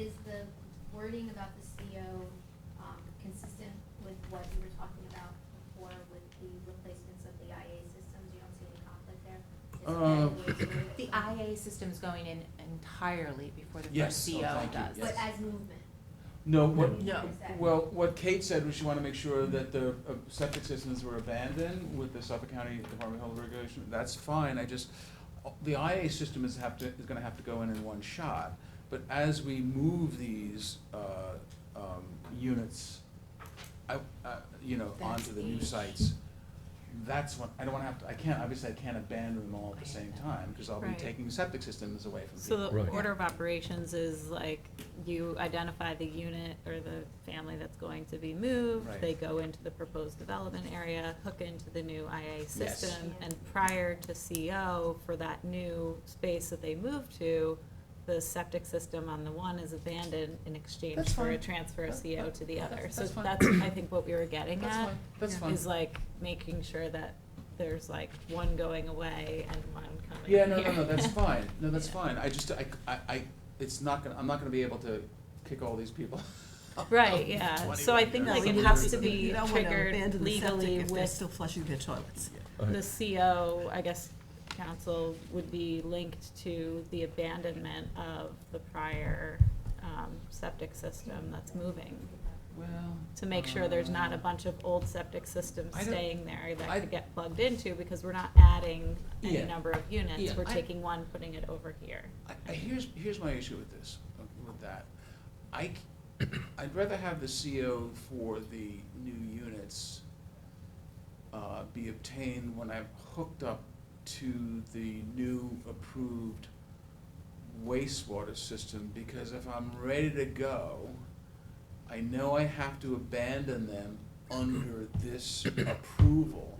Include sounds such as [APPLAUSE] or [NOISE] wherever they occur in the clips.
is the wording about the CO, um, consistent with what you were talking about before with the replacements of the IA systems? You don't see any conflict there? Is that the Uh, way it's The worded? IA system's going in entirely before the Yes, first oh, CO thank you, does. But yes. as movement? No, what, No. is that- well, what Kate said was she wanted to make sure that the uh, septic systems were abandoned with the Suffolk County Department of Health Regulation, that's fine, I just, uh, the IA system is have to, is gonna have to go in in one shot, but as we move these, uh, um, units, I, uh, you know, That's onto the new each. sites, that's what, I don't wanna have to, I can't, obviously I can't abandon them all at the same time, cause I'll be Right. taking septic systems away from people. So the Right. order of operations is like, you identify the unit or the family that's going to be moved. Right. They go into the proposed development area, hook into the new IA system. Yeah. And prior to CO for that new space that they move to, the septic system on the one is abandoned in exchange That's for a fine. transfer of That- CO that- to the other. that's- So that's fine. that's, I think, what we were getting That's at. fine, that's fine. Is like making sure that there's like one going away and one coming Yeah, no, no, here. no, [LAUGHS] that's fine, no, that's Yeah. fine, I just, I, I, I, it's not gonna, I'm not gonna be able to kick all these people. [LAUGHS] Right, yeah, so I think like it You has don't- to be you don't wanna triggered abandon the septic legally If they're with still flushing their toilets. the CO, I guess, council would be linked to the abandonment of the prior, um, septic system that's moving. Well. To make sure there's not a uh, bunch of old septic systems I don't- staying there I- that could get plugged into, because we're not adding any Yeah. number of Yeah, units, we're I- taking one, putting it over here. I, I, here's, here's my issue with this, with that. I, c- I'd rather have the CO for the new units, uh, be obtained when I've hooked up to the new approved wastewater system, because if I'm ready to go, I know I have to abandon them under this approval,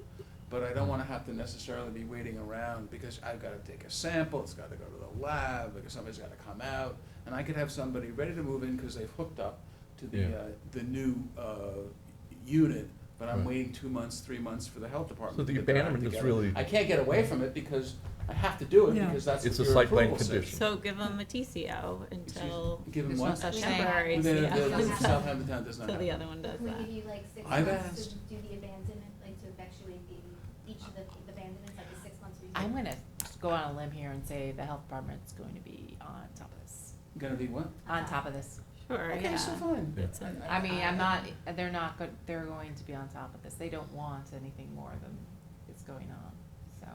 but I don't wanna have to necessarily be waiting around, because I've gotta take a sample, it's gotta go to the lab, because somebody's gotta come out, and I could have somebody ready to move in, cause they've hooked up to the, Yeah. uh, the new, uh, unit, but I'm Right. waiting two months, three months for the health department. So to the get their act abandonment is together. really- I can't get away from it, because I have to do it, Yeah. because that's what It's a your site plan approval says. condition. So give them a TCO Excuse- until Give them There's no what? such thing. temporary The, the, [LAUGHS] the Yeah. CO, Southampton town does not till have. the that. other one does Can we that. give you like six I've months to asked- do the abandonment, like to effectuate the, each of the the abandonments, like the six months review? I'm gonna go on a limb here and say the health department's going to be on top of this, Gonna be what? on Uh-huh. top of this. Sure, yeah. Okay, so fine. Yeah. It's an- I mean, I'm not, they're not, go- they're going to be on top of this. They don't want anything more than is going on, so.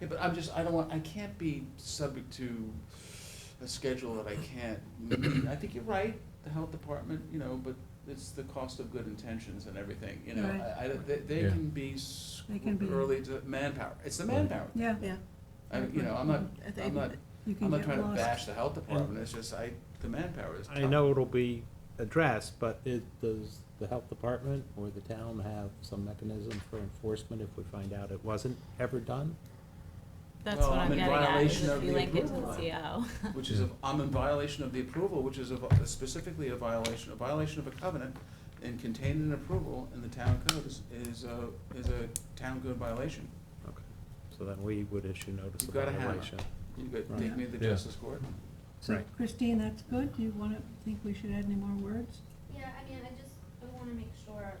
Yeah, but I'm just, I don't want, I can't be subject to a schedule that I can't meet. I think you're right, the health department, you know, but it's the cost of good intentions and everything, you know. Right. I, I, they, they Yeah. can be s- They can be- early to manpower. It's the manpower. Yeah. Yeah, I, you know, I'm not, I think I'm not, You can I'm not get trying to lost. bash the health department. It's just I, the manpower is tough. I know it'll be addressed, but it, does the health department or the town have some mechanism for enforcement if we find out it wasn't ever done? That's Well, what I'm I'm in getting at, is violation if of you the link it to approval the CO. which is, a- I'm in violation of the approval, which is a- specifically a violation, a violation of a covenant and contained in approval in the town code is, is a, is a town code violation. Okay, so then we would issue notice You've of got a hammer. violation. You could take me to the Yeah. justice court. So Right. Christine, that's good. Do you want to, think we should add any more words? Yeah, I mean, I just, I wanna make sure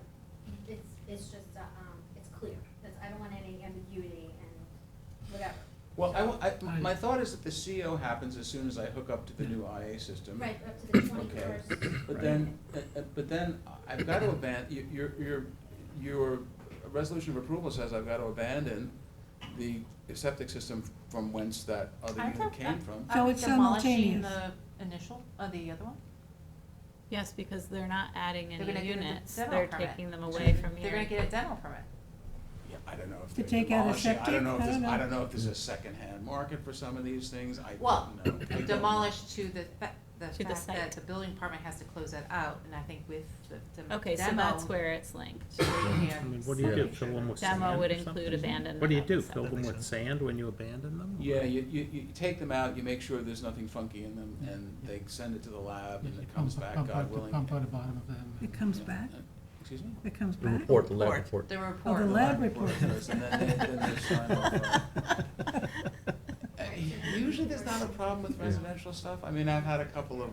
it's, it's just, uh, um, it's clear, that's, I don't want any ambiguity and whatever. Well, I wa- I- my thought is that the CO happens as soon as I hook up to the new IA system. Right, up to the twenty-first. But then, uh, uh, but then I've got to abandon, your, your, your resolution of approval says I've got to abandon the septic system from whence that other Aren't unit they- came from. So it's Demolishing simultaneous. the initial, uh, the other one? [LAUGHS] Yes, because they're not adding They're gonna any give it a units, dental they're permit. taking them away from They're gonna here. get a dental permit. Yeah, I don't know if To they're take out a demolishing, I septic? don't know if I there's, don't I know. don't know if there's a secondhand market for some of these things, I don't know. Well, [COUGHS] I don't know. Demolish to the, fa- the To the fact site. that the building department has to close that out, and I think with the dem- demo. Okay, so that's where it's linked. I mean, what do you do, fill them with sand Demo would or something? include abandonment. What do you of do, septic. fill them with sand when you abandon them? Yeah, you, you, you take them out, you make sure there's nothing funky in them, and they send it to the lab, and it comes back, God willing. Pump out the bottom of them. It comes back? Uh, Excuse me? It comes The back? report, the lab Report. report. The Oh, report. the lab report. And then they, then they sign off. [LAUGHS] Uh, [LAUGHS] Usually there's not a problem with Yeah. residential stuff, I mean, I've had a couple of